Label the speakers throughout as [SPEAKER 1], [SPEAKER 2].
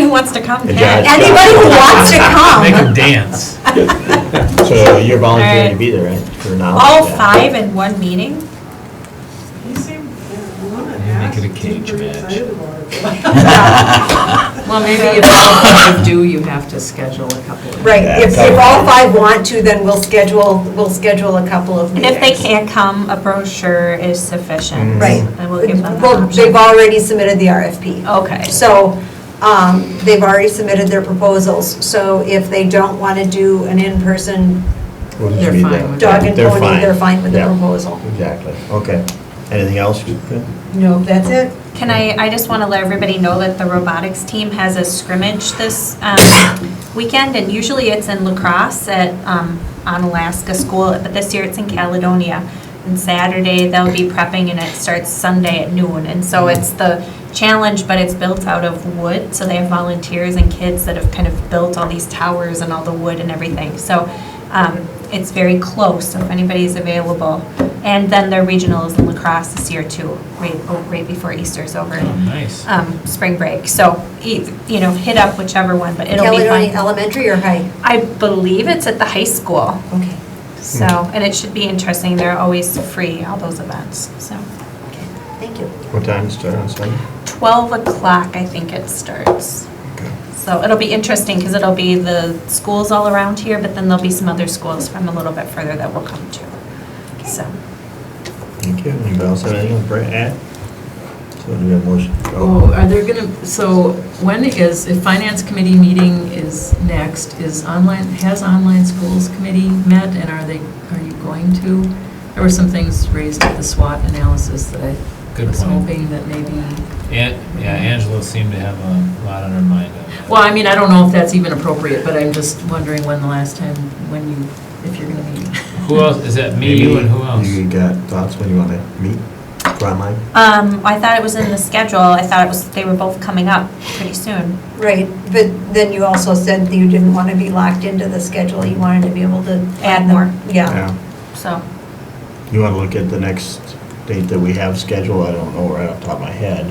[SPEAKER 1] Who wants to come?
[SPEAKER 2] Yeah.
[SPEAKER 1] can.
[SPEAKER 3] Anybody who wants to
[SPEAKER 4] Make them
[SPEAKER 3] come.
[SPEAKER 4] dance.
[SPEAKER 2] So you're volunteering
[SPEAKER 1] Alright.
[SPEAKER 2] to be there, right? Or not?
[SPEAKER 1] All
[SPEAKER 2] Yeah.
[SPEAKER 1] five in one meeting?
[SPEAKER 5] You seem, you want to
[SPEAKER 4] Maybe make
[SPEAKER 5] ask,
[SPEAKER 4] it a
[SPEAKER 5] you seem
[SPEAKER 4] cage
[SPEAKER 5] pretty
[SPEAKER 4] match.
[SPEAKER 5] excited about it.
[SPEAKER 6] Well, maybe if all of you do, you have to schedule a couple of.
[SPEAKER 3] Right, if, if all five want to, then we'll schedule, we'll schedule a couple of
[SPEAKER 1] And
[SPEAKER 3] meetings.
[SPEAKER 1] if they can't come, a brochure is sufficient.
[SPEAKER 3] Right.
[SPEAKER 1] And we'll give them
[SPEAKER 3] Well, they've
[SPEAKER 1] that option. Oh.
[SPEAKER 3] already submitted the RFP.
[SPEAKER 1] Okay.
[SPEAKER 3] So um, they've already submitted their proposals. So if they don't want to do an in-person
[SPEAKER 2] We'll just
[SPEAKER 6] They're
[SPEAKER 2] be
[SPEAKER 6] fine
[SPEAKER 2] there.
[SPEAKER 6] with
[SPEAKER 3] dog and
[SPEAKER 2] They're
[SPEAKER 3] pony, they're fine with the
[SPEAKER 2] Yeah,
[SPEAKER 3] proposal.
[SPEAKER 2] Exactly, okay. Anything else? Good.
[SPEAKER 3] No, that's it.
[SPEAKER 1] Can I, I just want to let everybody know that the robotics team has a scrimmage this um, weekend, and usually it's in lacrosse at, um, on Alaska School, but this year it's in Caledonia. And Saturday, they'll be prepping, and it starts Sunday at noon. And so it's the challenge, but it's built out of wood, so they have volunteers and kids that have kind of built all these towers and all the wood and everything. So um, it's very close, so if anybody's available. And then their regional is in lacrosse this year too, right, oh, right before Easter's over,
[SPEAKER 4] Oh, nice.
[SPEAKER 1] um, spring break. So, e- you know, hit up whichever one, but it'll be
[SPEAKER 3] Caledonia
[SPEAKER 1] fun.
[SPEAKER 3] Elementary or high?
[SPEAKER 1] I believe it's at the high school,
[SPEAKER 3] Okay.
[SPEAKER 1] so, and it should be interesting. They're always free, all those events, so.
[SPEAKER 3] Okay. Thank you.
[SPEAKER 2] What time does it start on Sunday?
[SPEAKER 1] 12 o'clock, I think it starts.
[SPEAKER 2] Okay.
[SPEAKER 1] So it'll be interesting because it'll be the schools all around here, but then there'll be some other schools from a little bit further that will come to. So,
[SPEAKER 2] Thank you. Anybody else have anything to bring- add? So do we have motion?
[SPEAKER 6] Oh, are there gonna, so when is, if finance committee meeting is next, is online, has online schools committee met and are they, are you going to? There were some things raised at the SWOT analysis that I
[SPEAKER 4] Good
[SPEAKER 6] was
[SPEAKER 4] point.
[SPEAKER 6] hoping that maybe,
[SPEAKER 4] An- Yeah, Angela seemed to have a lot on her mind. on that.
[SPEAKER 6] well, I mean, I don't know if that's even appropriate, but I'm just wondering when the last time, when you, if you're gonna meet.
[SPEAKER 4] Who else, is that me, you, and who else?
[SPEAKER 2] You got thoughts when you want to meet? Online?
[SPEAKER 1] um, I thought it was in the schedule. I thought it was, they were both coming up pretty soon.
[SPEAKER 3] Right, but then you also said that you didn't want to be locked into the schedule. You wanted to be able to.
[SPEAKER 1] Add more.
[SPEAKER 3] Yeah.
[SPEAKER 1] So,
[SPEAKER 2] You want to look at the next date that we have scheduled? I don't know right off the top of my head.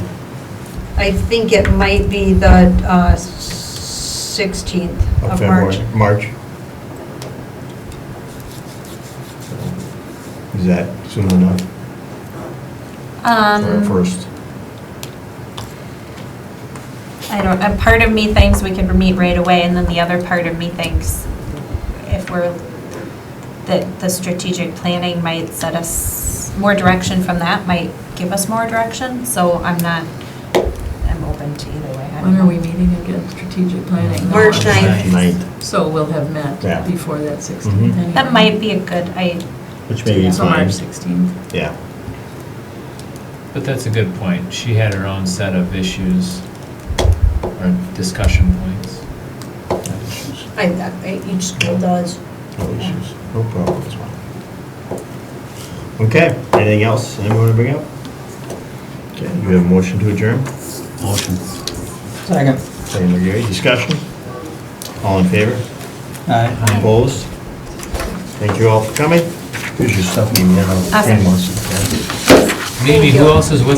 [SPEAKER 3] I think it might be the uh, 16th of
[SPEAKER 2] February-
[SPEAKER 3] March.
[SPEAKER 2] March. Is that soon enough for our
[SPEAKER 1] um,
[SPEAKER 2] first?
[SPEAKER 1] I don't, a part of me thinks we could meet right away and then the other part of me thinks if we're, that the strategic planning might set us, more direction from that might give us more direction. So I'm not, I'm open to either way. I don't
[SPEAKER 6] When are
[SPEAKER 1] know.
[SPEAKER 6] we meeting again, strategic planning?
[SPEAKER 3] March
[SPEAKER 6] No, I'm-
[SPEAKER 3] ninth.
[SPEAKER 2] Ninth.
[SPEAKER 6] So we'll have met
[SPEAKER 2] Yeah.
[SPEAKER 6] before that 16th.
[SPEAKER 2] Mhm.
[SPEAKER 1] That might be a good, I,
[SPEAKER 2] Which may be
[SPEAKER 6] So March
[SPEAKER 2] fine.
[SPEAKER 6] 16th.
[SPEAKER 2] Yeah.
[SPEAKER 4] But that's a good point. She had her own set of issues or discussion points.
[SPEAKER 3] I- I- Each school does.
[SPEAKER 2] No issues. No problems. Okay, anything else anyone want to bring up? Okay, you have a motion to adjourn?
[SPEAKER 7] Motion. Second.
[SPEAKER 2] Second by Gary, discussion? All in favor?
[SPEAKER 7] Aye.
[SPEAKER 2] Opposed? Thank you all for coming. Here's your stuff, you know,
[SPEAKER 1] Awesome.
[SPEAKER 2] Ken wants it, yeah.
[SPEAKER 4] Maybe who else is with